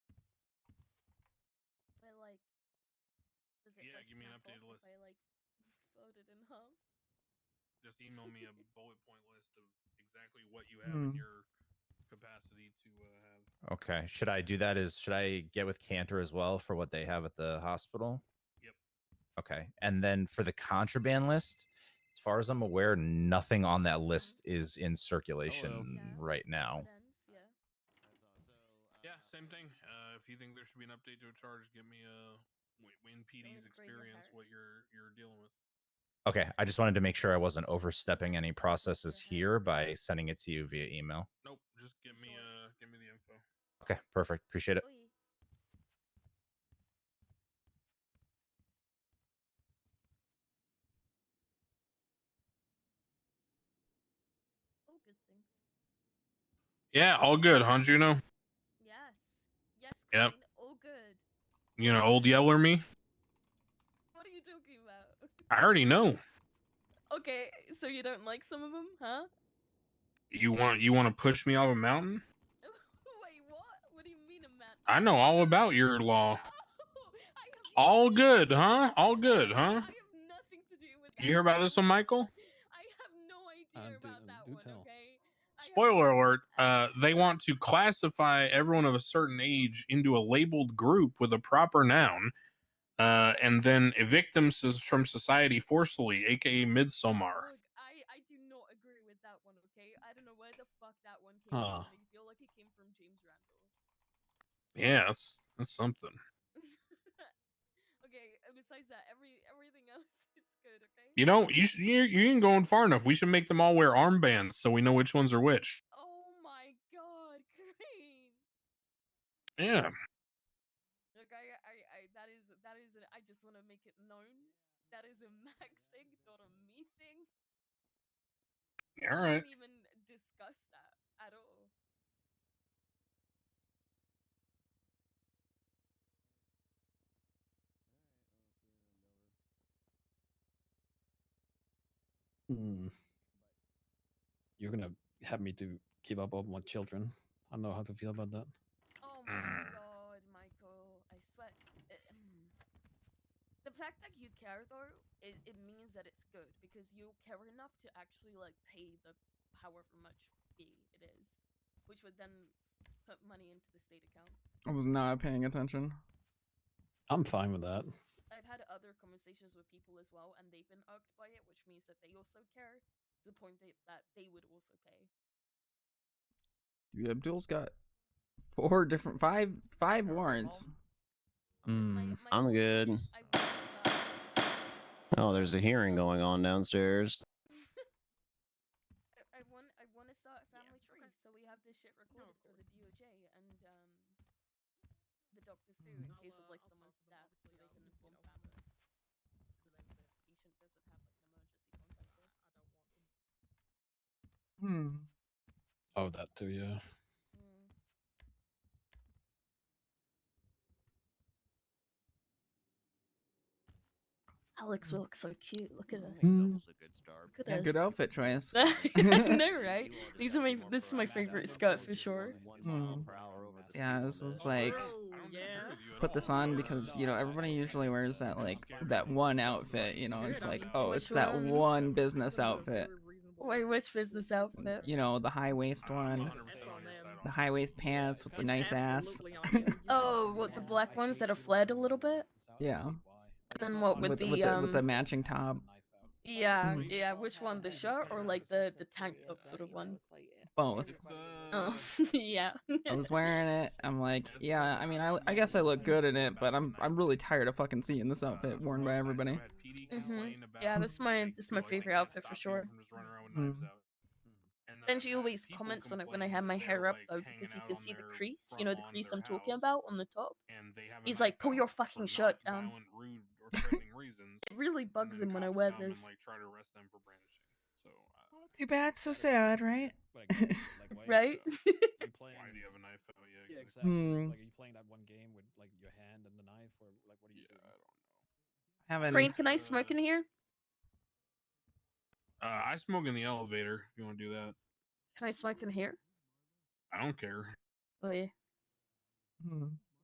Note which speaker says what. Speaker 1: you mean
Speaker 2: snap
Speaker 1: updated
Speaker 2: off
Speaker 1: list?
Speaker 2: If I like voted in hub.
Speaker 1: Just email me a bullet point list of exactly what you have in
Speaker 2: Hmm.
Speaker 3: Mm.
Speaker 1: your capacity to uh, have.
Speaker 3: Okay. Should I do that? Is should I get with Cantor as well for what they have at the hospital?
Speaker 1: Yep.
Speaker 3: Okay. And then for the contraband list, as far as I'm aware, nothing on that list is in circulation
Speaker 2: Yeah.
Speaker 3: right now.
Speaker 2: Depends, yeah.
Speaker 1: Yeah, same thing. Uh, if you think there should be an update to a charge, give me a wh- when PD's
Speaker 2: would break your
Speaker 1: experience
Speaker 2: heart.
Speaker 1: what you're you're dealing with.
Speaker 3: Okay. I just wanted to make sure I wasn't overstepping any processes
Speaker 2: Mhm.
Speaker 3: here by sending it to you via email.
Speaker 1: Nope, just give me
Speaker 2: Sure.
Speaker 1: uh give me the info.
Speaker 3: Okay. Perfect. Appreciate it.
Speaker 2: Oy. Oh, good things.
Speaker 1: Yeah, all good, huh, Juno?
Speaker 2: Yes. Yes,
Speaker 1: Yep.
Speaker 2: Queen. Oh, good.
Speaker 1: You know, old yeller me.
Speaker 2: What are you talking about?
Speaker 1: I already know.
Speaker 2: okay, so you don't like some of them, huh?
Speaker 1: You want you want to push me off a mountain?
Speaker 2: Wait, what? What do you mean, a man?
Speaker 1: I know all about your
Speaker 2: Oh,
Speaker 1: law.
Speaker 2: I have
Speaker 1: All
Speaker 2: nothing-
Speaker 1: good, huh? All good, huh?
Speaker 2: I have nothing to do with that.
Speaker 1: You hear about this one, Michael?
Speaker 2: I have no
Speaker 4: Um,
Speaker 2: idea
Speaker 4: do-
Speaker 2: about
Speaker 4: um,
Speaker 2: that
Speaker 4: do
Speaker 2: one,
Speaker 4: tell.
Speaker 2: okay? I have
Speaker 1: Spoiler
Speaker 2: no-
Speaker 1: alert, uh, they want to classify everyone of a certain age into a labeled group with a proper noun, uh, and then evict them s- from society forcefully, aka Midsummer.
Speaker 2: Look, I, I do not agree with that one, okay? I don't know where the fuck that one came
Speaker 4: Huh.
Speaker 2: from. I feel like it came from James Randall.
Speaker 1: Yeah, that's, that's something.
Speaker 2: okay, uh, besides that, every everything else is good, okay?
Speaker 1: You know, you should, you you ain't going far enough. We should make them all wear armbands so we know which ones are which.
Speaker 2: Oh my god, Crane!
Speaker 1: Yeah,
Speaker 2: Look, I, I, I, that is, that is, a, I just want to make it known. That is a Max thing, not a me thing.
Speaker 1: all
Speaker 2: We
Speaker 1: right.
Speaker 2: didn't even discuss that at all.
Speaker 4: Hmm. You're gonna have me to give up on my children. I don't know how to feel about that.
Speaker 2: Oh my
Speaker 1: Mm.
Speaker 2: god, Michael, I swear. it- mm. the fact that you care though, it, it means that it's good because you care enough to actually like pay the however much fee it is, which would then put money into the state account.
Speaker 5: I was not paying attention.
Speaker 4: I'm fine with that.
Speaker 2: I've had other conversations with people as well, and they've been irked by it, which means that they also care to the point that, that they would also pay.
Speaker 5: Dude, Abdul's got four different five five warrants. Mm.
Speaker 2: My- my
Speaker 6: Mm, I'm
Speaker 2: whole
Speaker 6: good.
Speaker 2: thing is I want to start-
Speaker 6: Oh, there's a hearing going on downstairs.
Speaker 2: I, I want I want to start a family tree, so we have this shit recorded for the DOJ and um the doctors too,
Speaker 6: Mm,
Speaker 2: in case
Speaker 6: uh,
Speaker 2: of like someone's death, so they can inform family.
Speaker 6: um,
Speaker 5: Hmm.
Speaker 4: Oh, that too, yeah.
Speaker 2: Mm. Alex looks so cute. Look at us.
Speaker 4: Mm.
Speaker 2: Look
Speaker 5: Yeah,
Speaker 2: at
Speaker 5: good
Speaker 2: us.
Speaker 5: outfit choice.
Speaker 2: I know, right? These are my this is my favorite skirt for sure.
Speaker 4: Hmm.
Speaker 5: Mm. Yeah, this was like
Speaker 1: I don't
Speaker 7: yeah.
Speaker 1: disagree with you at
Speaker 5: put this
Speaker 1: all.
Speaker 5: on because you know everybody usually wears that like that one outfit. You know, it's like oh, it's that
Speaker 2: Which one?
Speaker 5: one business outfit.
Speaker 2: Wait, which business outfit?
Speaker 5: You know, the high waist
Speaker 1: I'm
Speaker 5: one,
Speaker 1: 100% on your side on
Speaker 5: the
Speaker 1: that.
Speaker 5: high waist pants with the nice ass.
Speaker 2: Oh, what the black ones that have fled a little bit?
Speaker 5: Yeah.
Speaker 2: then what
Speaker 5: with,
Speaker 2: with the,
Speaker 5: with, the, with the
Speaker 2: um,
Speaker 5: matching top,
Speaker 2: Yeah,
Speaker 5: Mhm.
Speaker 2: yeah. Which one, the shirt or like the the tank top sort of one?
Speaker 5: both.
Speaker 1: It's,
Speaker 2: Oh,
Speaker 1: uh,
Speaker 2: yeah.
Speaker 5: I was wearing it. I'm like, yeah. I mean, I, I guess I look good in it, but I'm I'm really tired of fucking seeing this
Speaker 1: Uh,
Speaker 5: outfit worn by everybody.
Speaker 2: Mhm. Yeah, that's my- that's my favorite outfit for sure.
Speaker 5: Mhm.
Speaker 2: And
Speaker 1: uh,
Speaker 2: she always comments on it when I have my hair up though, because you can see the crease. You know the crease I'm talking about on the top. He's like, "Pull your fucking shirt down."
Speaker 1: Rude or threatening reasons,
Speaker 2: It really
Speaker 1: and
Speaker 2: bugs
Speaker 1: then
Speaker 2: him when I
Speaker 1: cops
Speaker 2: wear
Speaker 1: come and,
Speaker 2: this.
Speaker 1: like, try to arrest them for brandishing. So, uh,
Speaker 5: Too bad, so sad, right?
Speaker 2: Right?
Speaker 1: why do you have a knife out? Yeah, exactly.
Speaker 4: Yeah, exactly.
Speaker 5: Hmm.
Speaker 4: Like, are you playing that one game with like your hand and the knife, or like what are you
Speaker 1: Yeah,
Speaker 4: doing?
Speaker 1: I don't
Speaker 5: Haven't.
Speaker 2: Crane, can I smoke in here?
Speaker 1: Uh, I smoke in the elevator. If you want to do that,
Speaker 2: Can I smoke in here?
Speaker 1: I don't care.
Speaker 2: Oh yeah.
Speaker 5: Hmm.